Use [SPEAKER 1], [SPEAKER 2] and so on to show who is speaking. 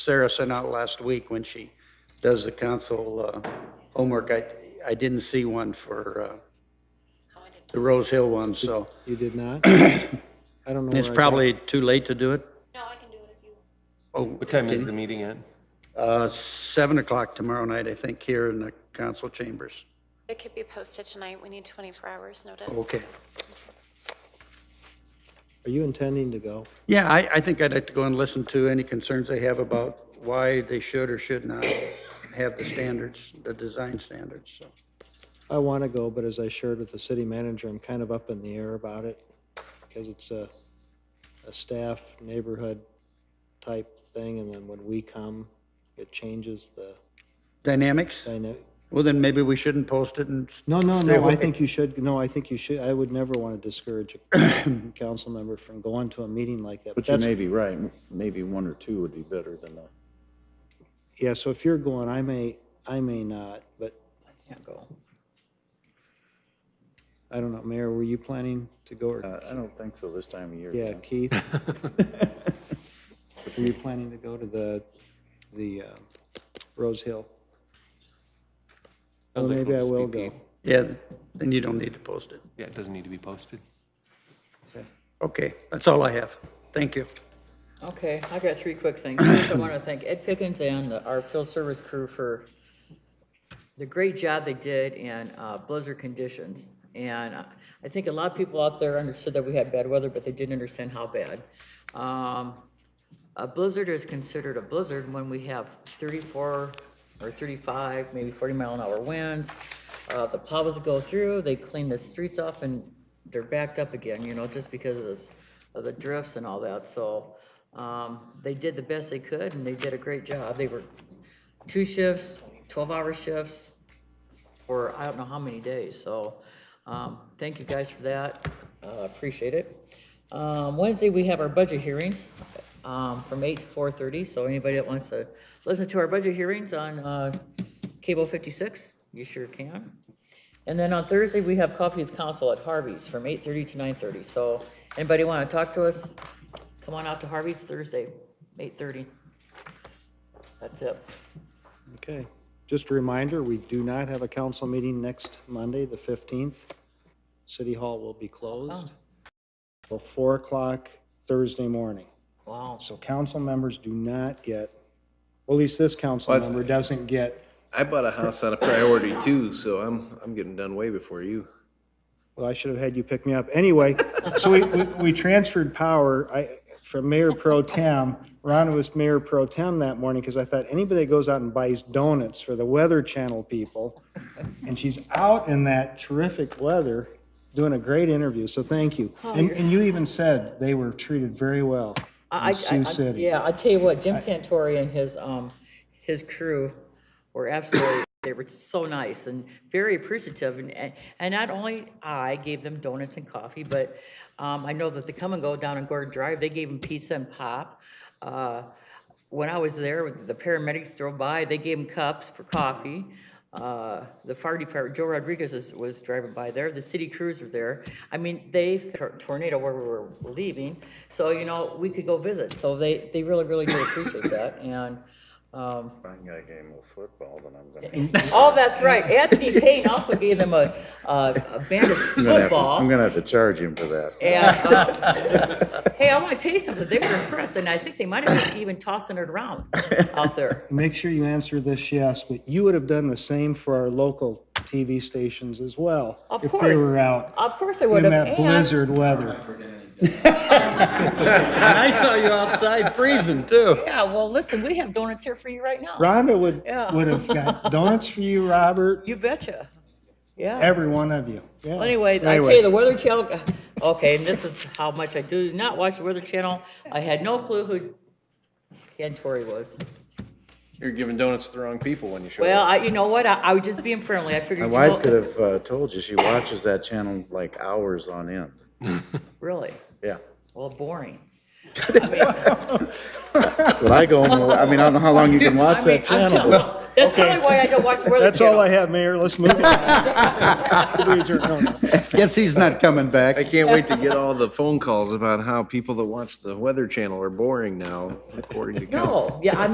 [SPEAKER 1] Sarah sent out last week when she does the council uh, homework. I, I didn't see one for uh, the Rose Hill one, so
[SPEAKER 2] You did not? I don't know.
[SPEAKER 1] it's
[SPEAKER 2] where I got-
[SPEAKER 1] probably too late to do it.
[SPEAKER 3] No, I can do it if you.
[SPEAKER 1] Oh,
[SPEAKER 4] What time is the meeting at?
[SPEAKER 1] uh, seven o'clock tomorrow night, I think, here in the council chambers.
[SPEAKER 3] It could be posted tonight. We need 24 hours notice.
[SPEAKER 1] Okay.
[SPEAKER 2] Are you intending to go?
[SPEAKER 1] Yeah, I, I think I'd like to go and listen to any concerns they have about why they should or should not have the standards, the design standards, so.
[SPEAKER 2] I want to go, but as I shared with the city manager, I'm kind of up in the air about it because it's a, a staff neighborhood type thing. And then when we come, it changes the
[SPEAKER 1] Dynamics?
[SPEAKER 2] dynamic.
[SPEAKER 1] Well, then maybe we shouldn't post it and,
[SPEAKER 2] No, no,
[SPEAKER 1] Stay
[SPEAKER 2] no, I
[SPEAKER 1] away.
[SPEAKER 2] think you should, no, I think you should, I would never want to discourage a council member from going to a meeting like that.
[SPEAKER 5] But you
[SPEAKER 2] that's-
[SPEAKER 5] may be right, maybe one or two would be better than a
[SPEAKER 2] Yeah, so if you're going, I may, I may not, but. I can't go. I don't know, Mayor, were you planning to go or,
[SPEAKER 5] Uh, I don't think so this time of year.
[SPEAKER 2] yeah,
[SPEAKER 5] Tim.
[SPEAKER 2] Keith? Were you planning to go to the, the uh, Rose Hill? Well, maybe I will go.
[SPEAKER 1] yeah, then you don't need to post it.
[SPEAKER 4] Yeah, it doesn't need to be posted.
[SPEAKER 1] Okay, that's all I have. Thank you.
[SPEAKER 6] Okay, I got three quick things. First, I want to thank Ed Pickens and our field service crew for the great job they did in uh, blizzard conditions. And uh, I think a lot of people out there understood that we had bad weather, but they didn't understand how bad. Um, A blizzard is considered a blizzard when we have 34 or 35, maybe 40 mile an hour winds. Uh, The plows go through, they clean the streets off and they're backed up again, you know, just because of this, of the drifts and all that. So um, they did the best they could and they did a great job. They were two shifts, 12-hour shifts for I don't know how many days. So um, thank you guys for that. Uh, Appreciate it. Um, Wednesday, we have our budget hearings um, from 8 to 4:30. So anybody that wants to listen to our budget hearings on uh, Cable 56, you sure can. And then on Thursday, we have coffee with council at Harvey's from 8:30 to 9:30. So anybody want to talk to us, come on out to Harvey's Thursday, 8:30. That's it.
[SPEAKER 2] Okay, just a reminder, we do not have a council meeting next Monday, the 15th. City Hall will be
[SPEAKER 6] Oh.
[SPEAKER 2] closed till 4 o'clock Thursday morning.
[SPEAKER 6] Wow.
[SPEAKER 2] So council members do not get, well, at least this council
[SPEAKER 7] Well, that's-
[SPEAKER 2] member doesn't get,
[SPEAKER 7] I bought a house on a priority too, so I'm I'm getting done way before you.
[SPEAKER 2] well, I should have had you pick me up. Anyway, so we, we, we transferred power, I, from Mayor Pro Tem. Ron was Mayor Pro Tem that morning because I thought anybody that goes out and buys donuts for the Weather Channel people, and she's out in that terrific weather, doing a great interview, so thank you.
[SPEAKER 6] Oh,
[SPEAKER 2] And, and you even said they were treated very well.
[SPEAKER 6] I,
[SPEAKER 2] in
[SPEAKER 6] I-
[SPEAKER 2] Sioux
[SPEAKER 6] I-
[SPEAKER 2] City.
[SPEAKER 6] Yeah, I tell you what, Jim Cantori and his, um, his crew were absolutely, they were so nice and very appreciative. And, and- and not only I gave them donuts and coffee, but, um, I know that the Come and Go down on Gordon Drive, they gave them pizza and pop. Uh, when I was there, the paramedics drove by, they gave them cups for coffee. Uh, the fire department, Joe Rodriguez is, was driving by there, the city crews were there. I mean, they, tor- tornado where we were leaving, so, you know, we could go visit. So they, they really, really did appreciate that, and, um,
[SPEAKER 5] I got a game of football, then I'm gonna.
[SPEAKER 6] oh, that's right, Anthony Payne also gave them a, a a band of
[SPEAKER 5] I'm gonna have to- I'm
[SPEAKER 6] football.
[SPEAKER 5] gonna have to charge him for that.
[SPEAKER 6] And, uh, hey, I wanna tell you something, they were impressed, and I think they might have even tossing it around out there.
[SPEAKER 2] make sure you answer this yes, but you would have done the same for our local TV stations as well.
[SPEAKER 6] Of
[SPEAKER 2] If they
[SPEAKER 6] course.
[SPEAKER 2] were out
[SPEAKER 6] Of course they
[SPEAKER 2] in
[SPEAKER 6] would have,
[SPEAKER 2] that
[SPEAKER 6] and
[SPEAKER 2] blizzard weather.
[SPEAKER 1] And I saw you outside freezing too.
[SPEAKER 6] Yeah, well, listen, we have donuts here for you right now.
[SPEAKER 2] Rhonda would,
[SPEAKER 6] Yeah.
[SPEAKER 2] would have got donuts for you, Robert,
[SPEAKER 6] You betcha. Yeah.
[SPEAKER 2] every one of you. Yeah.
[SPEAKER 6] Well, Anyways, I tell you, the Weather Channel, okay, and this is how much I do not watch the Weather Channel. I had no clue who Ken Torrey was.
[SPEAKER 7] You're giving donuts to the wrong people when you show
[SPEAKER 6] Well,
[SPEAKER 7] up.
[SPEAKER 6] I, you know what? I, I was just being friendly. I
[SPEAKER 5] My
[SPEAKER 6] figured. you
[SPEAKER 5] wife
[SPEAKER 6] all-
[SPEAKER 5] could have uh, told you, she watches that channel like hours on end.
[SPEAKER 6] Really?
[SPEAKER 5] Yeah.
[SPEAKER 6] Well, boring.
[SPEAKER 5] But I go, home. I mean, I don't know how long you can
[SPEAKER 6] I
[SPEAKER 5] watch
[SPEAKER 6] mean,
[SPEAKER 5] that channel.
[SPEAKER 6] I'm telling-
[SPEAKER 5] but-
[SPEAKER 6] That's probably why I don't watch the Weather
[SPEAKER 2] That's all I
[SPEAKER 6] Channel.
[SPEAKER 2] have, Mayor. Let's move on.
[SPEAKER 1] Guess he's not coming back.
[SPEAKER 7] I can't wait to get all the phone calls about how people that watch the Weather Channel are boring now, according to council.
[SPEAKER 6] No, yeah, I